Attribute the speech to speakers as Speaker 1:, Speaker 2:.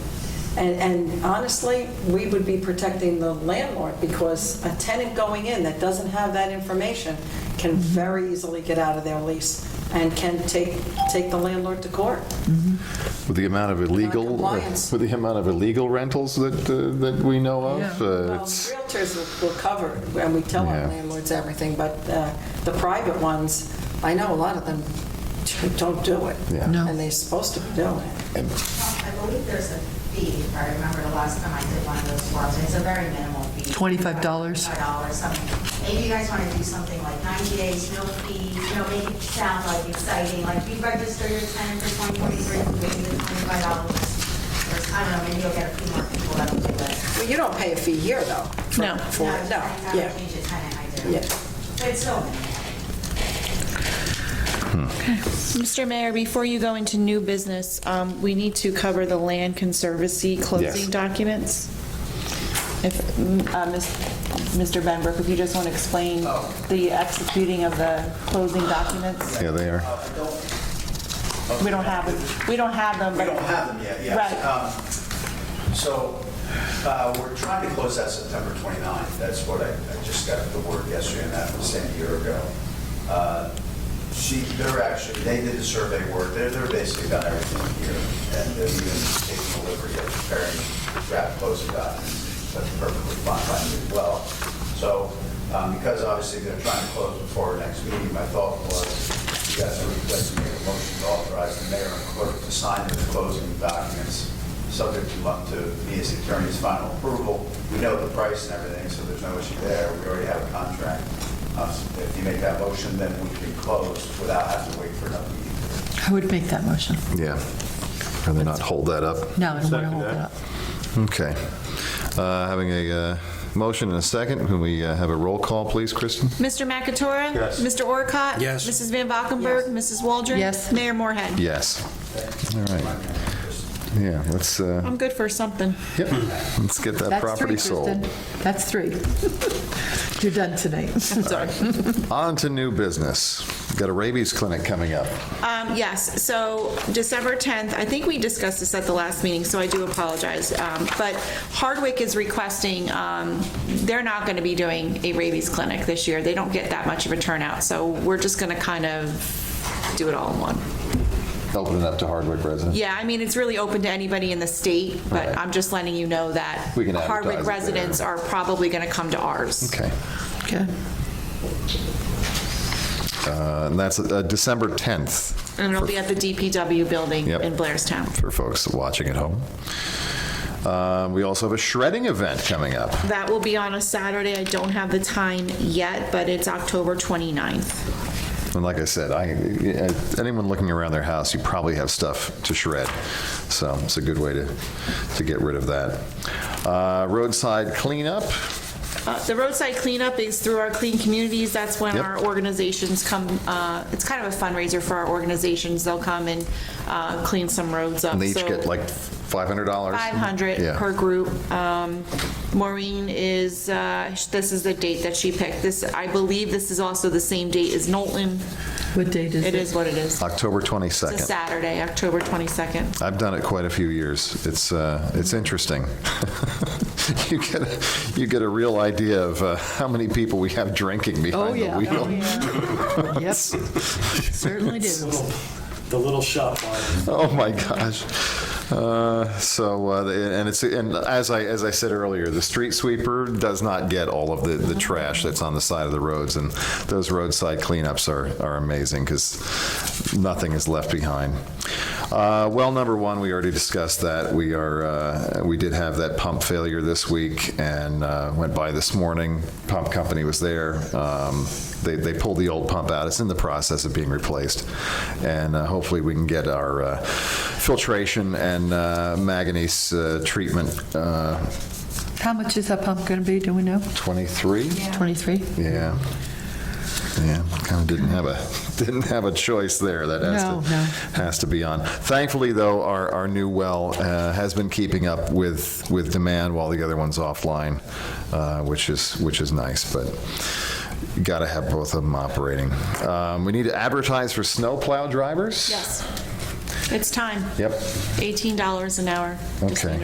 Speaker 1: And, and honestly, we would be protecting the landlord because a tenant going in that doesn't have that information
Speaker 2: Mm-hmm.
Speaker 1: can very easily get out of their lease and can take, take the landlord to court.
Speaker 2: With the amount of illegal, uh,
Speaker 1: compliance.
Speaker 2: with the amount of illegal rentals that, uh, that we know of,
Speaker 3: Yeah.
Speaker 2: uh,
Speaker 1: Well,
Speaker 2: it's,
Speaker 1: Realtors will- will cover, it, and we tell our
Speaker 2: Yeah.
Speaker 1: landlords everything, but uh, the private ones, I know a lot of them don't do it.
Speaker 2: Yeah.
Speaker 3: No.
Speaker 1: And they're supposed to be doing it.
Speaker 4: I believe there's a fee, if I remember the last time I did one of those swaps, it's a very minimal fee.
Speaker 3: $25?
Speaker 4: $25, something. Maybe you guys want to do something like 90 days, no fees, you know, make it sound like exciting, like you register your tenant for 2023, maybe the $25. Or, I don't know, maybe you'll get a few more people that'll do it.
Speaker 1: Well, you don't pay a fee here, though. for-
Speaker 3: No.
Speaker 1: For,
Speaker 4: No, I
Speaker 1: no,
Speaker 4: I
Speaker 1: yeah,
Speaker 4: change the tenant, I do.
Speaker 1: yeah.
Speaker 4: But it's so minimal.
Speaker 5: Mr. Mayor, before you go into new business, um, we need to cover the land conservancy
Speaker 2: Yes.
Speaker 5: closing documents. If, mm, uh, Ms- Mr. Benbrook, if you just want to explain
Speaker 6: Oh.
Speaker 5: the executing of the closing documents?
Speaker 2: yeah, they are.
Speaker 6: I don't,
Speaker 5: We don't have, it- we don't have them,
Speaker 6: we
Speaker 5: but...
Speaker 6: don't have them yet, yeah.
Speaker 5: Um, Right.
Speaker 6: Um, So uh, we're trying to close that September 29th. That's what I, I just got the word yesterday, and that was sent a year ago. Uh, She, they're actually, they did the survey work, they're, they're basically done everything here, and they're even taking delivery of preparing draft closing documents. That's perfectly fine by me as well. So um, because obviously they're trying to close before our next meeting, my thought was, you guys are requesting a motion to authorize the mayor and clerk to sign the closing documents, subject to up to his attorney's final approval. We know the price and everything, so there's no issue there. We already have a contract. Uh, so If you make that motion, then we can close without having to wait for another meeting.
Speaker 3: I would make that motion.
Speaker 2: Yeah. Rather not hold that up.
Speaker 3: No, I don't want to hold that up.
Speaker 2: Okay. Uh, Having a uh, motion and a second, can we uh, have a roll call, please, Kristen?
Speaker 5: Mr. McAtora? Yes. Mr. Orcott?
Speaker 7: Yes.
Speaker 5: Mrs. Van Valkenburg? Mrs. Waldron?
Speaker 3: Yes.
Speaker 5: Mayor Moorhead?
Speaker 2: Yes. All right. Yeah, let's, uh,
Speaker 5: I'm good for something.
Speaker 2: yep, let's get that
Speaker 3: That's three,
Speaker 2: property sold.
Speaker 3: Kristen. That's three. You're done tonight.
Speaker 5: I'm sorry.
Speaker 2: On to new business. Got a rabies clinic coming up.
Speaker 5: Um, Yes, so December 10th, I think we discussed this at the last meeting, so I do apologize. Um, But Hardwick is requesting, um, they're not going to be doing a rabies clinic this year. They don't get that much of a turnout, so we're just going to kind of do it all in one.
Speaker 2: Open it up to Hardwick residents.
Speaker 5: Yeah, I mean, it's really open to anybody in the state, but
Speaker 2: Right.
Speaker 5: I'm just letting you know that
Speaker 2: We can advertise it
Speaker 5: Hardwick
Speaker 2: there.
Speaker 5: residents are probably going to come to ours.
Speaker 2: Okay.
Speaker 3: Okay.
Speaker 2: Uh, And that's uh, December 10th.
Speaker 5: And it'll be at the DPW building
Speaker 2: Yep.
Speaker 5: in Blairstown.
Speaker 2: for folks watching at home. Um, we also have a shredding event coming up.
Speaker 5: That will be on a Saturday. I don't have the time yet, but it's October 29th.
Speaker 2: And like I said, I, uh, anyone looking around their house, you probably have stuff to shred. So it's a good way to, to get rid of that. Uh, roadside cleanup.
Speaker 5: Uh, The roadside cleanup is through our Clean Communities. That's when
Speaker 2: Yep.
Speaker 5: our organizations come, uh, it's kind of a fundraiser for our organizations. They'll come and uh, clean some roads up.
Speaker 2: And they each
Speaker 5: So-
Speaker 2: get like $500.
Speaker 5: 500
Speaker 2: Yeah.
Speaker 5: per group. Um, Maureen is, uh, this is the date that she picked. This, I believe this is also the same date as Knowlton.
Speaker 3: What date is it?
Speaker 5: It is what it is.
Speaker 2: October
Speaker 5: It's a
Speaker 2: 22nd.
Speaker 5: Saturday, October 22nd.
Speaker 2: I've done it quite a few years. It's, uh, it's interesting. you, get a, you get a real idea of uh, how many people we have drinking behind
Speaker 3: Oh, yeah.
Speaker 2: the wheel.
Speaker 3: Yep. Certainly do.
Speaker 7: The little shop on
Speaker 2: Oh my gosh. Uh, so uh, and it's and as I as I said earlier, the street sweeper does not get all of the, the trash that's on the side of the roads, and those roadside cleanups are are amazing because nothing is left behind. Uh, well, number one, we already discussed that. We are uh, we did have that pump failure this week, and uh, went by this morning. Pump company was there. Um, they, they pulled the old pump out. It's in the process of being replaced, and uh, hopefully we can get our uh, filtration and uh, manganese uh, treatment uh,
Speaker 3: How much is that pump going to be? Do we know?
Speaker 2: 23.
Speaker 3: 23?
Speaker 2: Yeah, yeah, kind of didn't have a didn't have a choice there. That has
Speaker 3: No,
Speaker 2: to
Speaker 3: no.
Speaker 2: has to be on. Thankfully, though, our, our new well uh, has been keeping up with with demand while the other one's offline, uh, which is which is nice. But you got to have both of them operating. Um, we need to advertise for snowplow drivers.
Speaker 5: Yes. It's time.
Speaker 2: Yep.
Speaker 5: $18 an hour. Just
Speaker 2: Okay.
Speaker 5: need